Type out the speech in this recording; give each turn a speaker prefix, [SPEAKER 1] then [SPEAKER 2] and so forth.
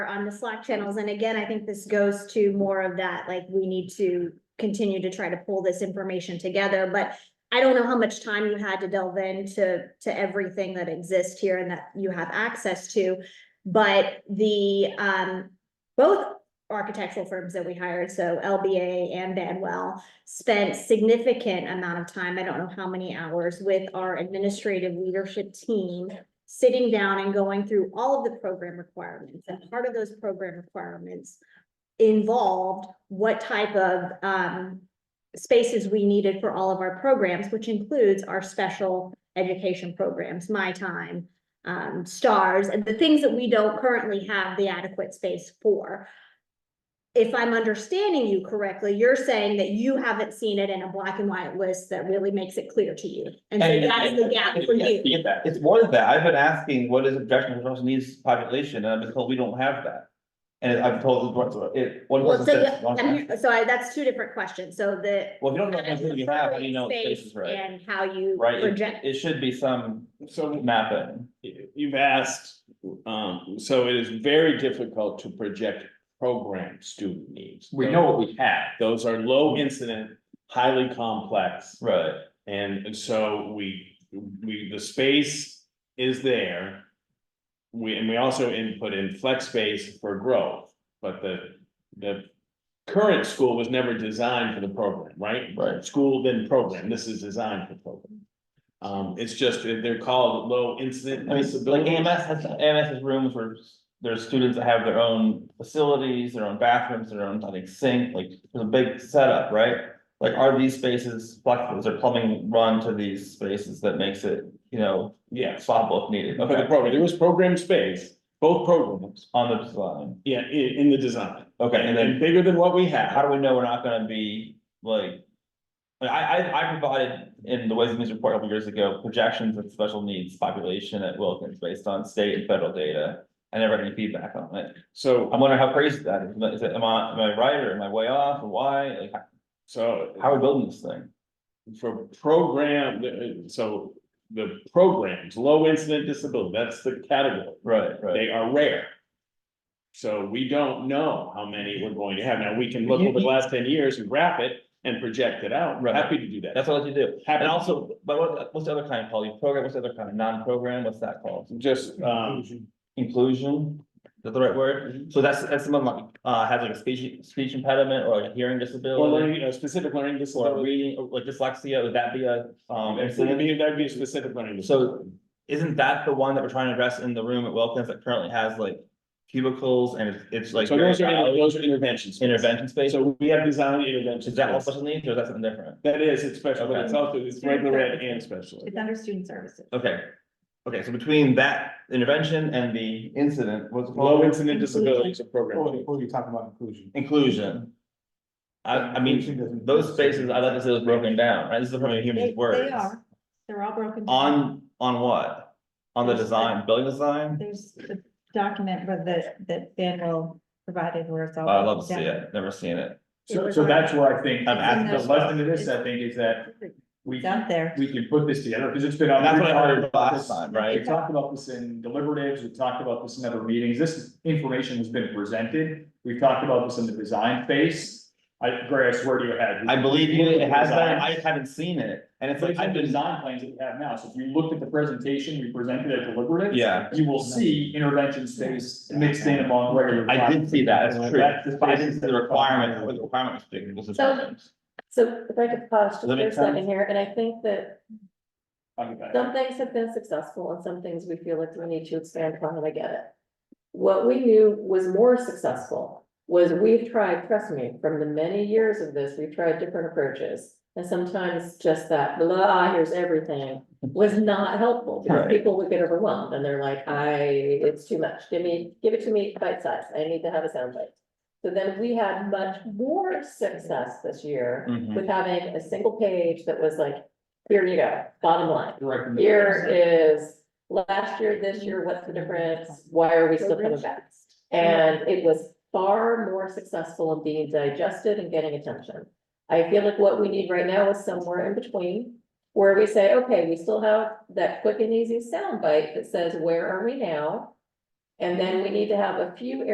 [SPEAKER 1] on the Slack channels. And again, I think this goes to more of that, like, we need to continue to try to pull this information together, but I don't know how much time you had to delve into, to everything that exists here and that you have access to. But the, um, both architectural firms that we hired, so LBA and Banwell, spent significant amount of time, I don't know how many hours, with our administrative leadership team sitting down and going through all of the program requirements, and part of those program requirements involved what type of um spaces we needed for all of our programs, which includes our special education programs, My Time, um, STARS, and the things that we don't currently have the adequate space for. If I'm understanding you correctly, you're saying that you haven't seen it in a black and white list that really makes it clear to you, and so
[SPEAKER 2] And-
[SPEAKER 1] that's the gap
[SPEAKER 2] and-
[SPEAKER 1] for
[SPEAKER 2] yes,
[SPEAKER 1] you.
[SPEAKER 2] we get that. It's more than that. I've been asking, what is objection resource needs population? And I've been told we don't have that. And I've told, it, one
[SPEAKER 1] Well,
[SPEAKER 2] person
[SPEAKER 1] so,
[SPEAKER 2] said.
[SPEAKER 1] yeah,
[SPEAKER 2] "Don't
[SPEAKER 1] I'm
[SPEAKER 2] have
[SPEAKER 1] here- so I, that's two different questions, so the.
[SPEAKER 2] it." Well, if you don't know what kind of you have, how do you know
[SPEAKER 1] Space
[SPEAKER 2] space is right?
[SPEAKER 1] And how you
[SPEAKER 2] Right, it-
[SPEAKER 1] project,
[SPEAKER 2] It should be some
[SPEAKER 3] So
[SPEAKER 2] mapping.
[SPEAKER 3] you- you've asked, um, so it is very difficult to project program student needs.
[SPEAKER 4] We know what we have.
[SPEAKER 3] Those are low incident, highly complex,
[SPEAKER 2] Right.
[SPEAKER 3] and and so we, we, the space is there. We, and we also input in flex space for growth, but the, the current school was never designed for the program, right?
[SPEAKER 2] Right.
[SPEAKER 3] School then program, this is designed for program. Um, it's just, that they're called low incident
[SPEAKER 2] I mean, like
[SPEAKER 3] disabilities.
[SPEAKER 2] AMS has, AMS has rooms where there's students that have their own facilities, their own bathrooms, their own, I think, sink, like, there's a big setup, right? Like, are these spaces flexible? Is there plumbing run to these spaces that makes it, you know,
[SPEAKER 3] Yeah,
[SPEAKER 2] swappable if needed?
[SPEAKER 3] for the
[SPEAKER 2] Okay,
[SPEAKER 3] program, there was program space, both programs,
[SPEAKER 2] on the design.
[SPEAKER 3] yeah, in, in the design.
[SPEAKER 2] Okay, and then
[SPEAKER 3] And bigger than what we
[SPEAKER 2] how
[SPEAKER 3] have,
[SPEAKER 2] do we know we're not gonna be like? I I I provided in the Ways and Means report a couple years ago, projections of special needs population at Wilkins based on state and federal data. I never had any feedback on it. I
[SPEAKER 3] so,
[SPEAKER 2] wonder how crazy that is. Is it, am I, am I right or am I way off or why? Like,
[SPEAKER 3] so.
[SPEAKER 2] how are we building this thing?
[SPEAKER 3] for program, uh, so the programs, low incident disability, that's the category.
[SPEAKER 2] Right, right.
[SPEAKER 3] They are rare. So we don't know how many we're going to have. Now, we can look
[SPEAKER 2] You-
[SPEAKER 3] over the
[SPEAKER 2] you-
[SPEAKER 3] last ten years and graph it and project it out.
[SPEAKER 2] Right.
[SPEAKER 3] Happy to do that.
[SPEAKER 2] That's what I like to do.
[SPEAKER 3] Happy-
[SPEAKER 2] And also, but what, what's the other kind, Paul? You program, what's the other kind? Non-program, what's that called?
[SPEAKER 3] Just, um,
[SPEAKER 2] Inclusion, is that the right word? So that's, that's someone like, uh, has like a speech, speech impediment or a hearing
[SPEAKER 3] or
[SPEAKER 2] disability.
[SPEAKER 3] learning, uh, specific learning
[SPEAKER 2] Or
[SPEAKER 3] disability.
[SPEAKER 2] reading, like dyslexia, would that be a, um,
[SPEAKER 3] That'd
[SPEAKER 2] incident?
[SPEAKER 3] be, that'd be a specific learning.
[SPEAKER 2] So isn't that the one that we're trying to address in the room at Wilkins that currently has like cubicles and it's- it's like.
[SPEAKER 3] So
[SPEAKER 2] very
[SPEAKER 3] those are, inter-
[SPEAKER 2] loud?
[SPEAKER 3] those are interventions.
[SPEAKER 2] Intervention space,
[SPEAKER 3] So we have design interventions.
[SPEAKER 2] is that all special needs or is that something different?
[SPEAKER 3] That is, it's special, but
[SPEAKER 2] Okay.
[SPEAKER 3] it's also, it's regular ed and special. ed.
[SPEAKER 5] It's under student services.
[SPEAKER 2] Okay, okay, so between that intervention and the incident, what's it
[SPEAKER 3] Low
[SPEAKER 2] called?
[SPEAKER 3] incident disabilities of
[SPEAKER 4] Or,
[SPEAKER 3] program.
[SPEAKER 4] or Oh, you're talking about inclusion.
[SPEAKER 2] Inclusion. I, I mean,
[SPEAKER 4] Inclusion doesn't-
[SPEAKER 2] those spaces, I like to see those broken down, right? This is from a
[SPEAKER 5] They,
[SPEAKER 2] human
[SPEAKER 5] they
[SPEAKER 2] words.
[SPEAKER 5] are, they're all broken. down.
[SPEAKER 2] On, on what? On the design, building design?
[SPEAKER 5] There's the document with the, that Ben will provided where it's all.
[SPEAKER 2] Oh, I'd love to see
[SPEAKER 5] broken down.
[SPEAKER 2] it, never seen it.
[SPEAKER 4] So, so that's where I think,
[SPEAKER 2] I'm asking
[SPEAKER 4] the
[SPEAKER 5] those-
[SPEAKER 4] lesson of this, I think, is that we,
[SPEAKER 5] It's out there.
[SPEAKER 4] we can put this together, because it's been. on-
[SPEAKER 2] And that's what I heard last time,
[SPEAKER 4] We
[SPEAKER 2] right?
[SPEAKER 4] talked about this in deliberatives, we talked about this in other meetings, this information has been presented, we've talked about this in the design phase. I, Greg, I swear to your head.
[SPEAKER 2] I believe you, it has been,
[SPEAKER 4] Design.
[SPEAKER 2] I just haven't seen it, and it's
[SPEAKER 4] It's like
[SPEAKER 2] like, I've
[SPEAKER 4] the
[SPEAKER 2] been,
[SPEAKER 4] design plans that we have now, so if you looked at the presentation we presented at deliberative.
[SPEAKER 2] Yeah.
[SPEAKER 4] You will see intervention space mixed in among regular.
[SPEAKER 2] I did see that, that's true.
[SPEAKER 4] That's the
[SPEAKER 2] I didn't see the requirement, what
[SPEAKER 4] Well,
[SPEAKER 2] the requirement was big, was the
[SPEAKER 6] So-
[SPEAKER 2] preference.
[SPEAKER 6] So if I could pause just
[SPEAKER 2] Does that
[SPEAKER 6] for
[SPEAKER 2] make
[SPEAKER 6] a second here, and I think that some
[SPEAKER 4] I
[SPEAKER 6] things have been successful and some things we feel like we need to expand upon, and I get it. What we knew was more successful was we've tried, trust me, from the many years of this, we've tried different approaches. And sometimes just that, blah, here's everything, was not helpful because
[SPEAKER 2] Right.
[SPEAKER 6] people would get overwhelmed and they're like, I, it's too much. Give me, give it to me bite size. I need to have a sound bite. So then we had much more success this year
[SPEAKER 2] Mhm.
[SPEAKER 6] with having a single page that was like, here you go, bottom line.
[SPEAKER 4] Direct.
[SPEAKER 6] Here is last year, this year, what's the difference? Why are we still coming back? And it was far more successful in being digested and getting attention. I feel like what we need right now is somewhere in between. Where we say, okay, we still have that quick and easy soundbite that says, where are we now? And then we need to have a few